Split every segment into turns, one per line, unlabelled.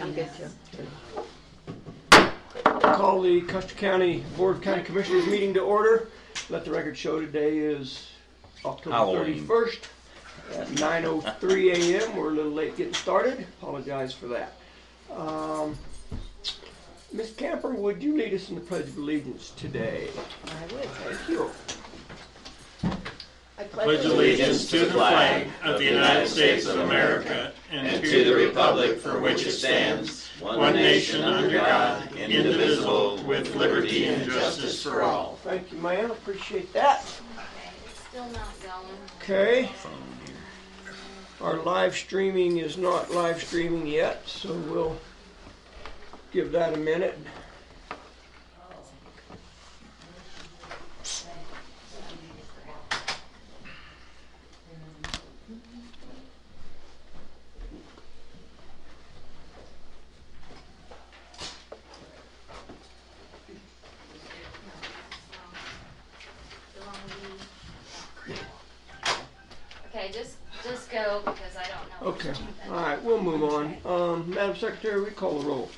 I'm good too.
Call the Custer County Board of County Commissioners meeting to order. Let the record show today is October
Halloween.
31st at 9:03 a.m. We're a little late getting started. Apologize for that. Um, Ms. Camper, would you lead us in the Pledge of Allegiance today?
I would.
Thank you.
I
pledge allegiance to the flag of the United States of America and to the republic for which it stands, one nation under God, indivisible, with liberty and justice for all.
Thank you, ma'am. Appreciate that.
Still not going.
Okay. Our live streaming is not live streaming yet, so we'll give that a minute.
The wrong lead. Okay, just, just go because I don't know.
Okay, all right, we'll move on. Um, Madam Secretary, we call the roll.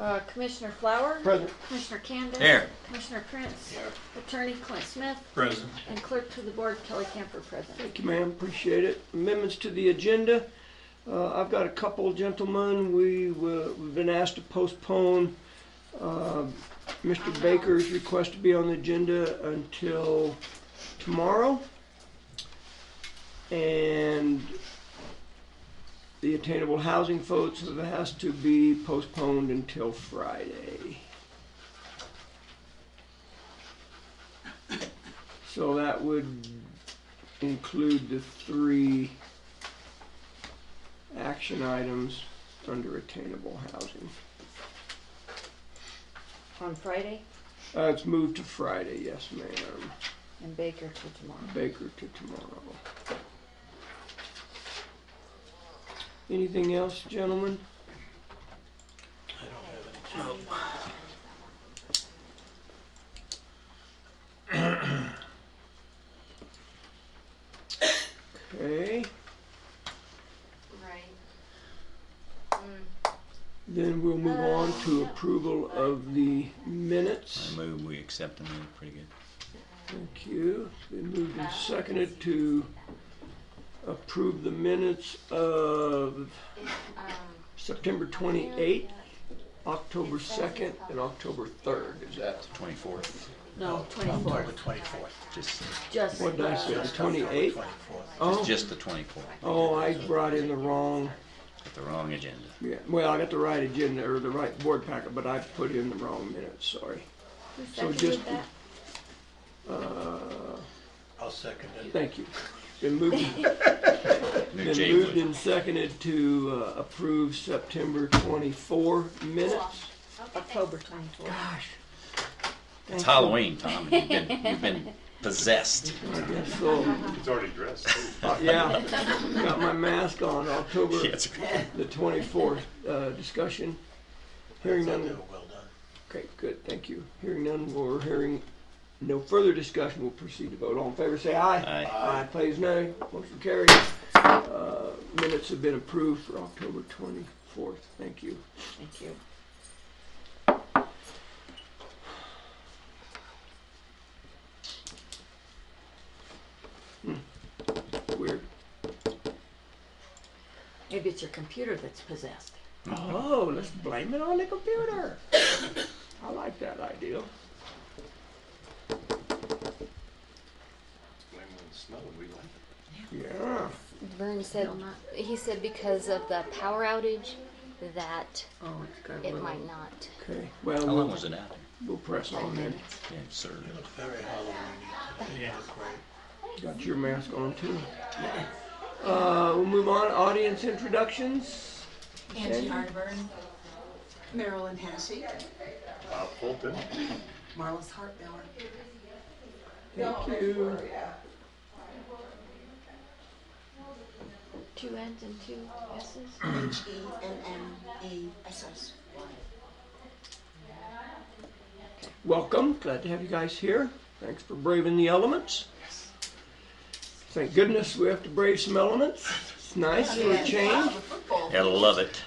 Uh, Commissioner Flower?
Present.
Commissioner Candace?
Here.
Commissioner Prince? Attorney Clint Smith?
Present.
And Clerk to the Board Kelly Camper present.
Thank you, ma'am, appreciate it. Amendments to the agenda. Uh, I've got a couple, gentlemen, we, will- we've been asked to postpone, uh, Mr. Baker's request to be on the agenda until tomorrow. And the attainable housing votes have asked to be postponed until Friday. So that would include the three action items under attainable housing.
On Friday
Uh, it's moved to Friday, yes ma'am.
and Baker to tomorrow.
Baker to tomorrow. Anything else, gentlemen? I don't have any. Okay,
Right.
then we'll move on to approval of the minutes.
I move we accept them, they're pretty good.
Thank you. Been moved and seconded to approve the minutes of
Um,
September 28th, October 2nd, and October 3rd. Is that,
Twenty-fourth,
No, twenty-fourth,
Twenty-fourth.
just,
just.
what did I
uh,
say, 28th? Oh,
just the twenty-fourth,
oh, I brought in the wrong,
the wrong agenda.
yeah, well, I got the right agenda, or the right board packet, but I put in the wrong minutes, sorry.
who
So
seconded
just-
that?
I'll second it.
Thank you. Been moved,
New
been
Jay
moved
Wood.
and seconded to uh, approve September 24 minutes.
October twenty-fourth.
Gosh.
It's Halloween, Tom, and you've been, you've been possessed.
Yes, so.
He's already dressed. too.
Uh, yeah, got my mask on, October
Yes.
the 24th, uh, discussion. Hearing none,
Well done.
okay, good, thank you. Hearing none, we're hearing no further discussion, we'll proceed to vote. All in favor, say aye.
Aye.
Aye, please, nay. Motion carried. Uh, Minutes have been approved for October 24th, thank you.
Thank you.
Weird.
Maybe it's your computer that's possessed.
Oh, let's blame it on the computer. I like that idea.
Blame it on the snow, we like it.
Yeah,
Vern said, he said because of the power outage, that
Oh, it's got a
it
little.
might not.
okay, well,
How long
we'll,
was it out there?
we'll press on then.
Yeah, sir.
Looks very Halloween. Yeah.
Got your mask on too. Uh, we'll move on, audience introductions.
Angie Harburn, Marilyn Hassey,
Bob Fulton,
Marlis Hartmiller.
Thank you.
Two N's and two S's?
H E N N E S S.
Welcome, glad to have you guys here. Thanks for braving the elements. Thank goodness we have to brave some elements. It's nice for a change.
Football.
Gotta love it.